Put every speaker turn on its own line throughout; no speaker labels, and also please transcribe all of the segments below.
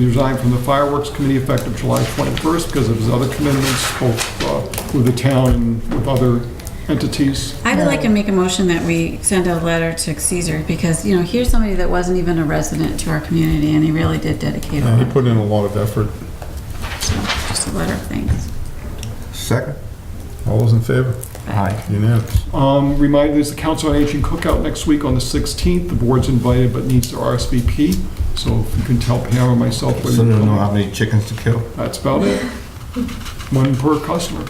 who resigned from the fireworks committee effective July 21st because of his other commitments, both uh, with the town and with other entities.
I would like to make a motion that we send a letter to Caesar because, you know, here's somebody that wasn't even a resident to our community and he really did dedicate a
And
Uh-huh.
he
lot,
put in a lot of effort.
just a letter of thanks.
Second?
All those in favor?
Aye.
Unanimous.
Um, Remind, there's the Council on Aging cookout next week on the 16th. The board's invited but needs to RSVP, so if you can tell Pam or myself whether
So
you're
you don't know how
coming.
many chickens to kill?
That's about it. One per customer,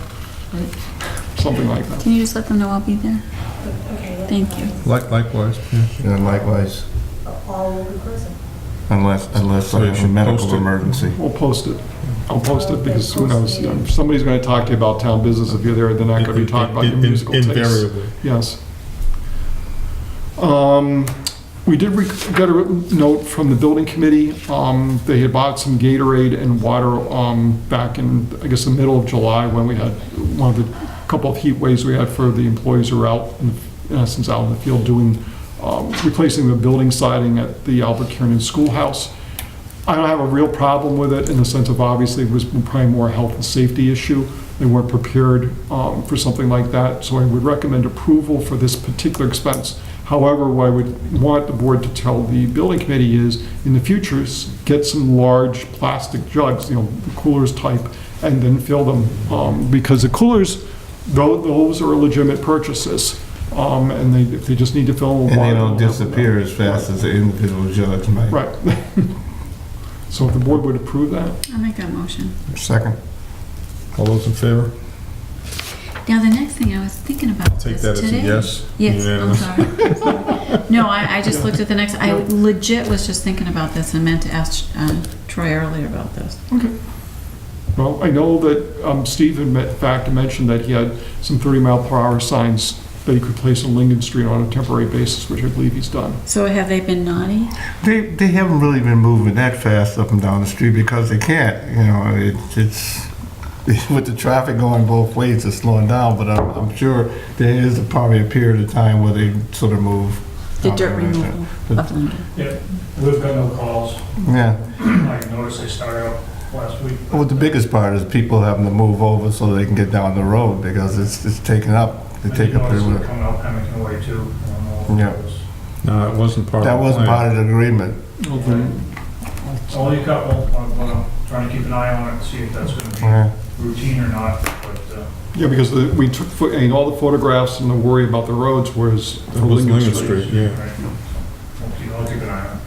something like that.
Can you just let them know I'll be there? Thank you.
Like Likewise, yeah.
And likewise,
all over prison.
unless, unless
So
I
you
have a
should
medical
post it.
emergency.
We'll post it. I'll post it because who knows? you know, Somebody's going to talk to you about town business. If you're there, they're not going to be talking about your
In- in-
musical tastes.
Invariably.
Yes. Um, We did rec- get a written note from the building committee. Um, They had bought some Gatorade and water um, back in, I guess, the middle of July when we had one of the, couple of heat waves we had for the employees who were out, in in essence, out in the field doing, um, replacing the building siding at the Albert Kiernan Schoolhouse. I don't have a real problem with it in the sense of obviously it was probably more a health and safety issue. They weren't prepared um, for something like that, so I would recommend approval for this particular expense. However, what I would want the board to tell the building committee is, in the future, s- get some large plastic jugs, you know, coolers type, and then fill them. um, Because the coolers, tho- those are legitimate purchases, um, and they, if they just need to fill.
And
them with
they
water,
don't
they'll have them.
disappear as fast as the individual judge might.
Right. So if the board would approve that?
I'll make that motion.
Second?
All those in favor?
Now, the next thing I was thinking about
Take
this
that as a
today.
yes.
Yes, I'm
Unanimous.
sorry. No, I, I just looked at the next, I legit was just thinking about this and meant to ask uh, Troy earlier about this.
Well, I know that um, Steve in me- fact mentioned that he had some 30 mile per hour signs that he could place on Lincoln Street on a temporary basis, which I believe he's done.
So have they been naughty?
They, they haven't really been moving that fast up and down the street because they can't, you know, it- it's, with the traffic going both ways, it's slowing down, but I'm, I'm sure there is probably a period of time where they sort of move.
The dirt removal of Lincoln?
Yeah, we've got no calls.
Yeah.
I noticed they started out last week.
Well, the biggest part is people having to move over so they can get down the road because it's, it's taken up. They
I
take
did
up
notice
their,
they're coming out Pemmican Way too. I don't know if it
Yeah.
was-
No, that wasn't part of the
that wasn't
plan.
part of the agreement.
Well, then,
Only a couple, I'm gonna- trying to keep an eye on it, see if that's gonna
Yeah.
be routine or not, but, uh,
Yeah, because the- we took, fo- I mean, all the photographs and the worry about the roads, whereas
That
for
was
Lincoln
Lincoln
Street.
Street, yeah.
right, so I'll keep, I'll keep an eye on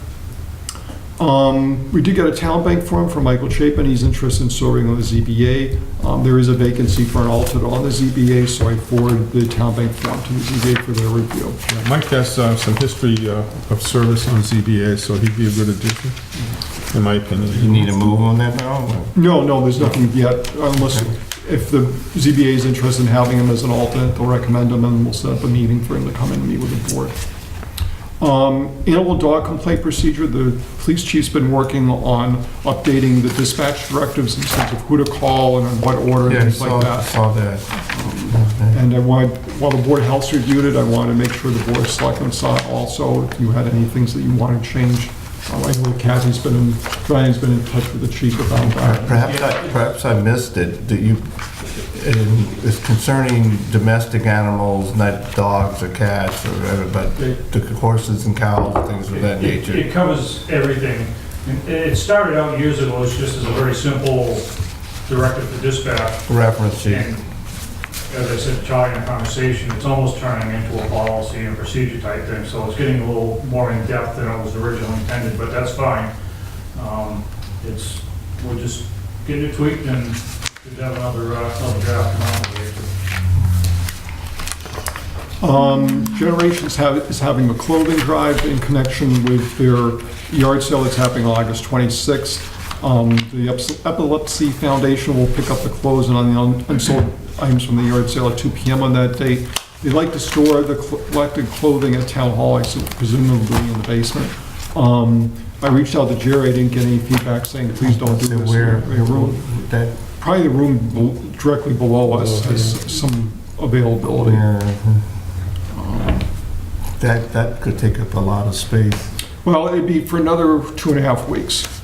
Um, We did get a talent bank form from Michael Chapin, he's interested in serving on the ZBA. Um, There is a vacancy for an alternate on the ZBA, so I forwarded the talent bank form to the ZBA for their review.
Yeah, Mike has uh, some history uh, of service on ZBA, so he'd be a good addition, in my opinion.
You need a move on that now?
No, no, there's nothing yet, unless, if the ZBA is interested in having him as an alternate, they'll recommend him, and we'll set up a meeting for him to come in and meet with the board. Um, Animal dog complaint procedure, the police chief's been working on updating the dispatch directives in terms of who to call and in what order and
Yeah, I
things like
saw,
that.
saw that.
And I wanted, while the Board of Health reviewed it, I wanted to make sure the Board of Selectmen saw it also, if you had any things that you wanted to change. Um, I know Kathy's been, in Brian's been in touch with the chief about that.
Perhaps I, perhaps I missed it, that you, in- it's concerning domestic animals, not dogs or cats or whatever, but the horses and cows, and things of that
it. It-
nature.
It covers everything. It- It started out years ago, it's just as a very simple directive to dispatch,
Reference to,
And as I said, Charlie, in the conversation, it's almost turning into a policy and procedure type thing, so it's getting a little more in-depth than it was originally intended, but that's fine. Um, It's, we're just getting it tweaked and we'd have another, uh, another draft come out later.
Um, Generations have, is having a clothing drive in connection with their yard sale that's happening on August 26th. Um, The Eps- Epilepsy Foundation will pick up the clothes and on the un- unsold items from the yard sale at 2 PM on that date. They like to store the cl- collected clothing at Town Hall, I su- presumably in the basement. Um, I reached out to Jerry, I didn't get any feedback saying, please don't do
to
this.
where,
Your room-
that,
Probably the room bel- directly below us has some availability.
yeah. uh-huh. That, that could take up a lot of space.
Well, it'd be for another two and a half weeks.